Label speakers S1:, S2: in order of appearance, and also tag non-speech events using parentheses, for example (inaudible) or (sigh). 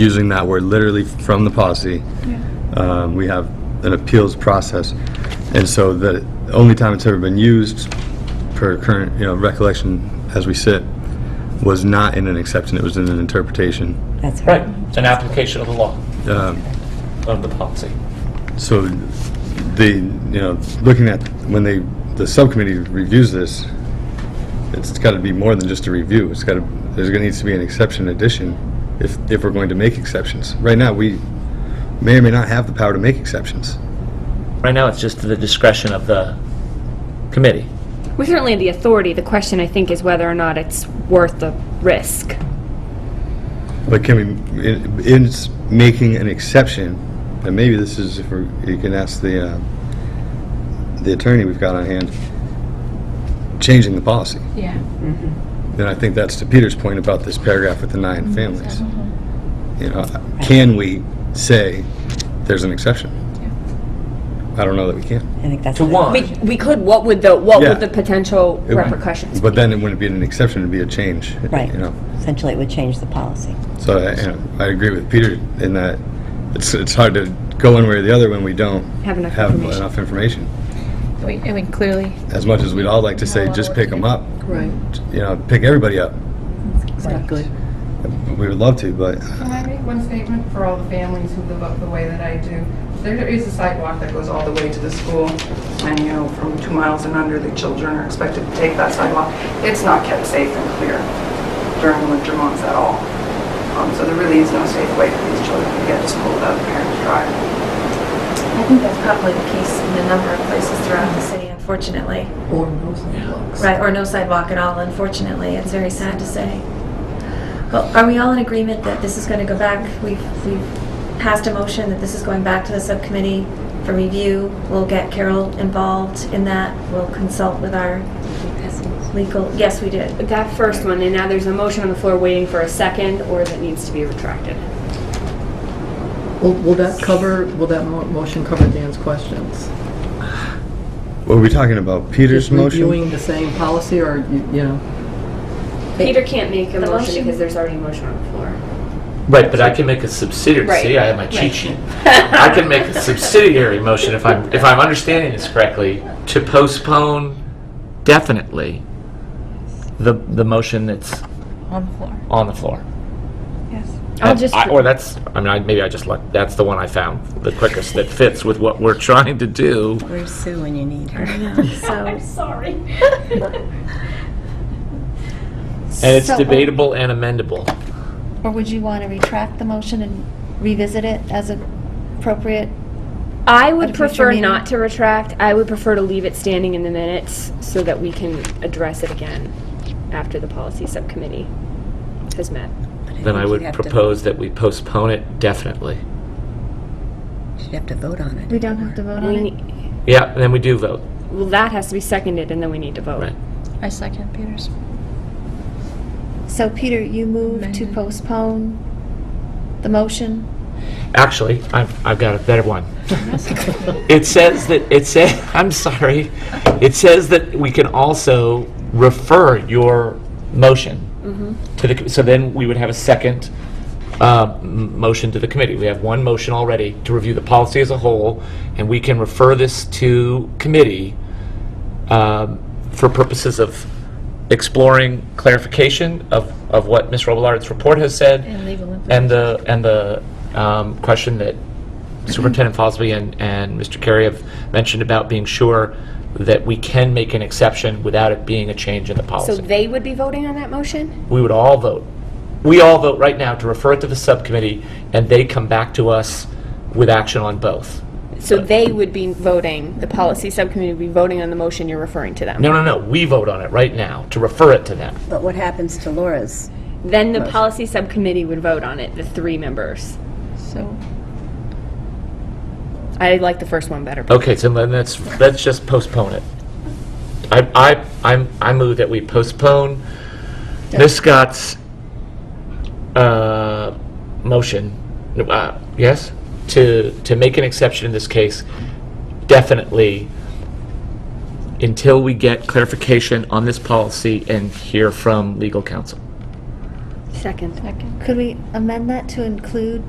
S1: using that word literally from the policy. Um, We have an appeals process, and so the only time it's ever been used, per current, you know, recollection as we sit, was not in an exception, it was in an interpretation.
S2: That's right.
S3: Right, it's an application of the law,
S1: Um,
S3: of the policy.
S1: So the, you know, looking at, when they, the subcommittee reviews this, it's got to be more than just a review. It's got to, there's going to need to be an exception addition if, if we're going to make exceptions. Right now, we may or may not have the power to make exceptions.
S3: Right now, it's just to the discretion of the committee.
S4: We certainly have the authority. The question, I think, is whether or not it's worth the risk.
S1: But can we, in, in s- making an exception, and maybe this is, if we're- you can ask the, uh, the attorney we've got on hand, changing the policy.
S5: Yeah.
S1: Then I think that's to Peter's point about this paragraph with the nine families. You know, can we say there's an exception? I don't know that we can.
S2: I think that's.
S3: To
S2: the-
S3: one.
S4: We, we could, what would the, what
S1: Yeah.
S4: would the potential
S1: It-
S4: repercussions be?
S1: But then it wouldn't be an exception, it'd be a change.
S2: Right.
S1: You know,
S2: Essentially, it would change the policy.
S1: so I, you know, I agree with Peter in that it's, it's hard to go one way or the other when we don't
S4: Have enough
S1: have
S4: information.
S1: enough information.
S5: We, I mean, clearly,
S1: As much as we'd all like to say, just pick them up,
S6: Right,
S1: you know, pick everybody up.
S6: exactly.
S1: We would love to, but
S7: Can I make one statement for all the families who live up the way that I do? There is a sidewalk that goes all the way to the school, and, you know, from two miles and under, the children are expected to take that sidewalk. It's not kept safe and clear during the winter months at all. Um, So there really is no safe way for these children to get to school without the parents driving.
S8: I think that's probably the case in a number of places throughout the city, unfortunately.
S6: Or no sidewalks.
S8: Right, or no sidewalk at all, unfortunately. It's very sad to say. But are we all in agreement that this is going to go back? We've, we've passed a motion that this is going back to the subcommittee for review. We'll get Carol involved in that. We'll consult with our legal, yes, we did.
S4: That first one, and now there's a motion on the floor waiting for a second, or that needs to be retracted.
S6: Will will that cover, will that mo- motion cover Dan's questions?
S1: were we talking about Peter's
S6: Just
S1: motion?
S6: Reviewing the same policy, or, you you know,
S4: Peter can't make a
S8: The
S4: motion
S8: motion-
S4: because there's already a motion on the floor.
S3: Right, but I can make a subsidiary, see, I have my cheat
S4: (laughs)
S3: sheet. I can make a subsidiary motion, if I'm, if I'm understanding this correctly, to postpone definitely the, the motion that's
S5: on the floor.
S3: on the floor.
S5: Yes.
S4: I'll just,
S3: I- Or that's, I mean, I- maybe I just, luck- that's the one I found the quickest that fits with what we're (laughs) trying to do.
S2: Where's Sue when you need her? (laughs)
S8: So,
S3: And it's debatable and amendable.
S5: Or would you want to retract the motion and revisit it as appropriate?
S4: I would
S5: At a future
S4: prefer
S5: meeting.
S4: not to retract. I would prefer to leave it standing in the minutes so that we can address it again after the policy subcommittee has met.
S3: Then I would propose that we postpone it definitely.
S2: You'd have to vote on it.
S5: We don't have to vote on
S4: We
S5: it?
S4: ne-
S3: Yeah, and then we do vote,
S4: Well, that has to be seconded, and then we need to vote.
S3: right?
S5: I second Peter's. So Peter, you move to postpone the motion?
S3: Actually, I've, I've got a better one. It says that, it says, (laughs) I'm sorry, it says that we can also refer your motion to the, so then we would have a second uh, m- motion to the committee. We have one motion already to review the policy as a whole, and we can refer this to committee um, for purposes of exploring clarification of, of what Ms. Robillard's report has said.
S5: And legal
S3: And the, and the um, question that Superintendent Fosby and, and Mr. Carey have mentioned about being sure that we can make an exception without it being a change in the
S4: So
S3: policy.
S4: they would be voting on that motion?
S3: We would all vote. We all vote right now to refer it to the subcommittee, and they come back to us with action on both.
S4: So they would be voting, the policy subcommittee would be voting on the motion you're referring to them?
S3: No, no, no, we vote on it right now to refer it to them.
S2: But what happens to Laura's?
S4: Then the policy subcommittee would vote on it, the three members.
S5: So,
S4: I like the first one better.
S3: Okay, so then let's, let's just postpone it. I, I, I'm- I move that we postpone Ms. Scott's, uh, motion, uh, yes? To, to make an exception in this case, definitely, until we get clarification on this policy and hear from legal counsel.
S4: Second.
S5: Could we amend that to include